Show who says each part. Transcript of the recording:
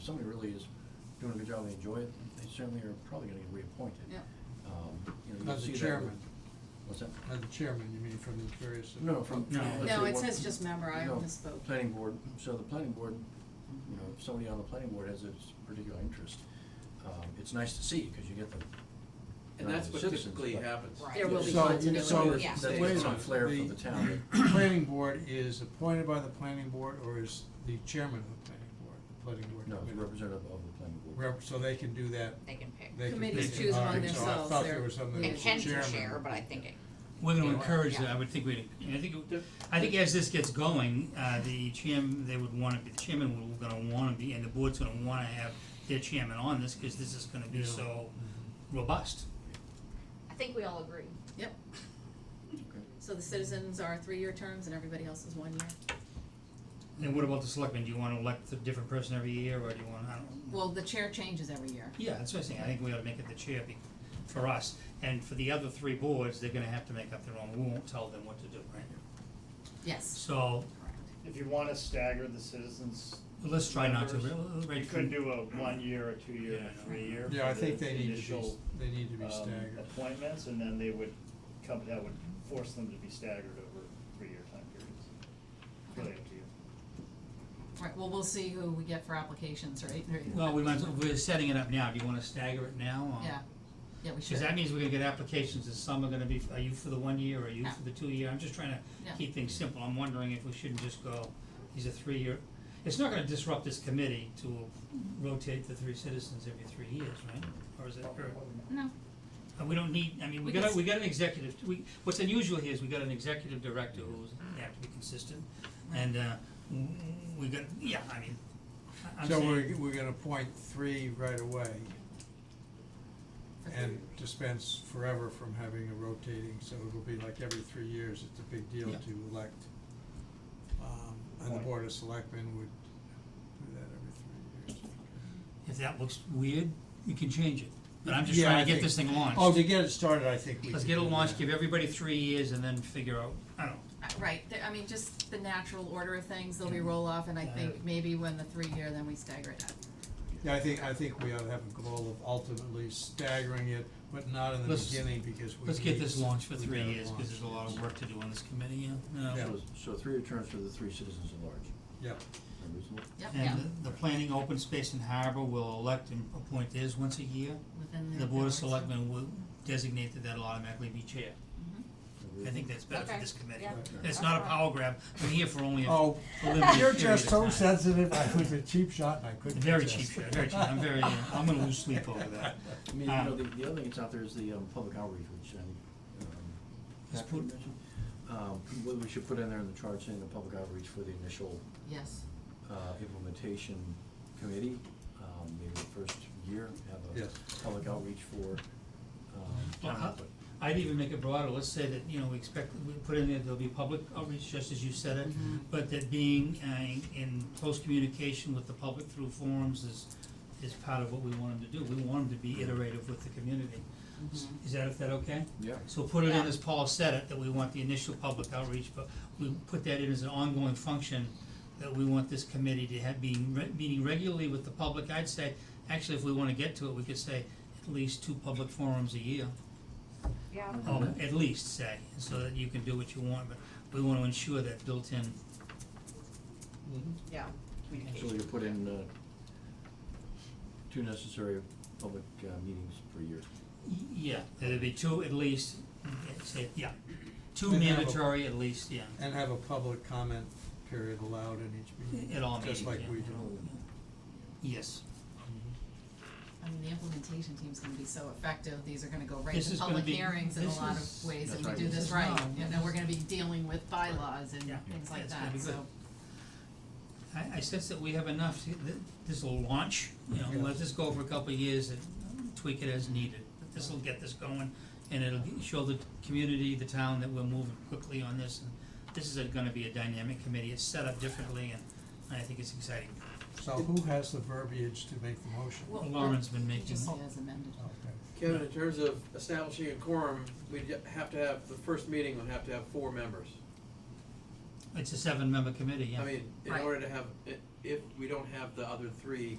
Speaker 1: somebody really is doing a good job, they enjoy it, they certainly are probably gonna get reappointed.
Speaker 2: Yeah.
Speaker 1: Um, you know, you
Speaker 3: Not
Speaker 1: see
Speaker 3: the
Speaker 1: that
Speaker 3: chairman,
Speaker 1: with- What's that?
Speaker 3: not the chairman, you mean from the various.
Speaker 1: No, from.
Speaker 4: No.
Speaker 1: let's
Speaker 2: No,
Speaker 1: say
Speaker 2: it
Speaker 1: one-
Speaker 2: says just member, I
Speaker 1: no,
Speaker 2: misspoke.
Speaker 1: Planning board, so the planning board, you know, if somebody on the planning board has a s- particular interest, um, it's nice to see, cause you get the. uh,
Speaker 4: And that's what
Speaker 1: citizens,
Speaker 4: typically
Speaker 1: but-
Speaker 4: happens.
Speaker 2: Right. There will be
Speaker 3: So-
Speaker 2: continuity,
Speaker 3: so
Speaker 2: yeah.
Speaker 1: That's
Speaker 4: Stays
Speaker 1: why it's
Speaker 4: on.
Speaker 1: on flare for the town.
Speaker 3: Planning board is appointed by the planning board or is the chairman of the planning board, the planning board?
Speaker 1: No, it's
Speaker 3: committee?
Speaker 1: representative of the planning board.
Speaker 3: Rep- so they can do that,
Speaker 5: They can pick.
Speaker 3: they can.
Speaker 2: Committees
Speaker 3: pick it.
Speaker 2: choose
Speaker 3: All
Speaker 2: among
Speaker 3: right, so
Speaker 2: themselves
Speaker 3: I thought
Speaker 2: their-
Speaker 3: there was something
Speaker 2: They
Speaker 3: that
Speaker 5: It
Speaker 3: was
Speaker 5: can
Speaker 3: the
Speaker 5: be
Speaker 3: chairman.
Speaker 5: share, but I think it,
Speaker 4: We're gonna
Speaker 5: Yeah.
Speaker 4: encourage that,
Speaker 5: Yeah.
Speaker 4: I would think we'd, I think, it- I think as this gets going, uh, the chairman, they would wanna be, the chairman would gonna wanna be, and the board's gonna wanna have their chairman on this, cause this is gonna be
Speaker 3: Yeah.
Speaker 4: so Mm-hmm. robust.
Speaker 5: I think we all agree.
Speaker 2: Yep. So the citizens are three-year terms and everybody else is one year?
Speaker 4: And what about the selectmen, do you wanna elect a different person every year, or do you wanna, I don't,
Speaker 2: Well, the chair changes every year.
Speaker 4: yeah, that's what I'm saying, I think we ought to make it the chair be, for us, and for the other three boards, they're gonna have to make up their own, we won't tell them what to do, right?
Speaker 2: Yes,
Speaker 4: So,
Speaker 2: correct.
Speaker 6: If you wanna stagger the citizens.
Speaker 4: let's try not to,
Speaker 6: members,
Speaker 4: re-
Speaker 6: You
Speaker 4: right,
Speaker 6: could do a one year, a two year,
Speaker 4: Yeah, I
Speaker 6: and
Speaker 4: know.
Speaker 6: a three year.
Speaker 3: Yeah, I
Speaker 6: for
Speaker 3: think
Speaker 6: the
Speaker 3: they need to be, s-
Speaker 6: initial,
Speaker 3: they need to be
Speaker 6: um,
Speaker 3: staggered.
Speaker 6: Appointments, and then they would, come, that would force them to be staggered over three year time periods. Really up to you.
Speaker 2: Right, well, we'll see who we get for applications, right? Or-
Speaker 4: well, we might, as well- we're setting it up now, do you wanna stagger it now, or?
Speaker 2: Yeah, yeah, we should.
Speaker 4: Cause that means we're gonna get applications, and some are gonna be, are you for the one year, or are you for the two year, I'm just trying to
Speaker 2: Yeah.
Speaker 4: keep things simple, I'm wondering if we shouldn't just go, these are three year. It's not gonna disrupt this committee to rotate the three citizens every three years, right, or is that, or,
Speaker 2: No,
Speaker 4: uh, we don't need, I mean, we
Speaker 2: We
Speaker 4: got,
Speaker 2: can
Speaker 4: a- we got an executive, we, what's unusual here is we got an executive director who's, they have to be consistent, and, uh, w- we got, yeah, I mean, I- I'm
Speaker 3: So
Speaker 4: saying.
Speaker 3: we're, we're gonna appoint three right away
Speaker 2: for three
Speaker 3: and
Speaker 2: years.
Speaker 3: dispense forever from having a rotating, so it'll be like every three years, it's a big deal
Speaker 4: Yeah.
Speaker 3: to elect. Um, and the
Speaker 6: Right.
Speaker 3: board of selectmen would do that every three years.
Speaker 4: If that looks weird, you can change it, but I'm just
Speaker 3: Yeah,
Speaker 4: trying
Speaker 3: I
Speaker 4: to get
Speaker 3: think-
Speaker 4: this thing launched.
Speaker 3: Oh, to get it started, I think we
Speaker 4: Let's
Speaker 3: could
Speaker 4: get a
Speaker 3: do
Speaker 4: launch,
Speaker 3: that.
Speaker 4: give everybody three years and then figure out, I don't know.
Speaker 2: Uh, Right, th- I mean, just the natural order of things, they'll be roll-off, and I
Speaker 4: Yeah.
Speaker 2: think maybe when the three-year, then we stagger it up.
Speaker 3: Yeah, I think, I think we ought to have a goal of ultimately staggering it, but not in the
Speaker 4: Let's-
Speaker 3: beginning because we
Speaker 4: Let's get
Speaker 3: need-
Speaker 4: this launched for
Speaker 3: we
Speaker 4: three
Speaker 3: gotta
Speaker 4: years, cause
Speaker 3: launch
Speaker 4: there's a lot
Speaker 3: this.
Speaker 4: of work to do on this committee, yeah.
Speaker 3: Yeah.
Speaker 1: So, so three returns for the three citizens at large,
Speaker 3: Yep,
Speaker 1: is that reasonable?
Speaker 2: Yep, yeah,
Speaker 4: And the, the planning, open space and harbor will elect and appoint theirs once a year.
Speaker 2: within
Speaker 5: Mm-hmm.
Speaker 2: the.
Speaker 4: The board of
Speaker 2: bounds, yeah.
Speaker 4: selectmen will designate that that'll automatically be chair.
Speaker 2: Mm-hmm.
Speaker 4: I think that's better for
Speaker 5: Okay,
Speaker 4: this committee.
Speaker 5: yeah.
Speaker 4: And It's not a
Speaker 5: Alright.
Speaker 4: power grab, I'm here for only a
Speaker 3: oh,
Speaker 4: limited period
Speaker 3: you're
Speaker 4: of
Speaker 3: just so
Speaker 4: time.
Speaker 3: sensitive, I was a cheap shot and I couldn't
Speaker 4: Very
Speaker 3: resist.
Speaker 4: cheap, shot, very cheap, I'm very, uh, I'm gonna lose sleep over that.
Speaker 1: I mean, you know,
Speaker 4: Um,
Speaker 1: the, the other thing that's out there is the, um, public outreach, which I think, um,
Speaker 4: Let's
Speaker 1: Catherine
Speaker 4: put-
Speaker 1: mentioned. Um, what we should put in there in the chart, saying the public outreach for the initial,
Speaker 2: Yes,
Speaker 1: uh, implementation committee, um, maybe the first year, have
Speaker 3: Yes.
Speaker 1: a public outreach for,
Speaker 4: Well,
Speaker 1: um, town
Speaker 4: how-
Speaker 1: input.
Speaker 4: I'd even make it broader, let's say that, you know, we expect, we put in there, there'll be public outreach, just as you said it, but that being uh in close communication with the public through forums is is part of what we want them to do, we want them to be iterative with the community. S- Is that, if that okay?
Speaker 1: Yeah.
Speaker 4: So put it in
Speaker 5: Yeah.
Speaker 4: as Paul said it, that we want the initial public outreach, but we put that in as an ongoing function, that we want this committee to have being, re- meeting regularly with the public, I'd say, actually, if we wanna get to it, we could say at least two public forums a year.
Speaker 5: Yeah.
Speaker 4: Oh, at least say, so that you can do what you want, but we wanna ensure that built-in,
Speaker 5: Yeah,
Speaker 1: So
Speaker 5: communication.
Speaker 1: you put in, uh, two necessary public, uh, meetings per year.
Speaker 4: yeah, there'd be two at least, yeah, say, yeah. Two
Speaker 3: And have a-
Speaker 4: mandatory at least, yeah,
Speaker 3: And have a public comment period allowed in each meeting.
Speaker 4: at all meetings,
Speaker 3: Just like
Speaker 4: yeah,
Speaker 3: we
Speaker 4: at
Speaker 3: do.
Speaker 4: all, yeah. Yes,
Speaker 2: I mean, the implementation team's gonna be so effective, these are gonna go right
Speaker 4: This
Speaker 2: to
Speaker 4: is gonna
Speaker 2: public
Speaker 4: be-
Speaker 2: hearings in a
Speaker 4: this
Speaker 2: lot
Speaker 4: is-
Speaker 2: of ways,
Speaker 1: That's
Speaker 2: and we
Speaker 1: right.
Speaker 2: do
Speaker 4: This
Speaker 2: this
Speaker 4: is
Speaker 2: right,
Speaker 4: wrong.
Speaker 2: and then we're gonna be dealing with bylaws and
Speaker 4: Yeah.
Speaker 2: things like
Speaker 4: It's gonna
Speaker 2: that,
Speaker 4: be
Speaker 2: so.
Speaker 4: good. I, I sense that we have enough, to- th- this'll launch, you know,
Speaker 3: Yeah.
Speaker 4: let this go for a couple of years and tweak it as needed. But This'll get this going, and it'll g- show the community, the town, that we're moving quickly on this, and this is a- gonna be a dynamic committee, it's set up differently, and I think it's exciting.
Speaker 3: So who has the verbiage to make the motion?
Speaker 2: Well,
Speaker 4: Lauren's been
Speaker 2: It
Speaker 4: making,
Speaker 2: just says amended.
Speaker 3: Okay.
Speaker 7: Kevin, in terms of establishing a quorum, we'd have to have, the first meeting would have to have four members.
Speaker 4: it's a seven-member committee, yeah.
Speaker 7: I mean, in
Speaker 2: Right.
Speaker 7: order to have, i- if we don't have the other three,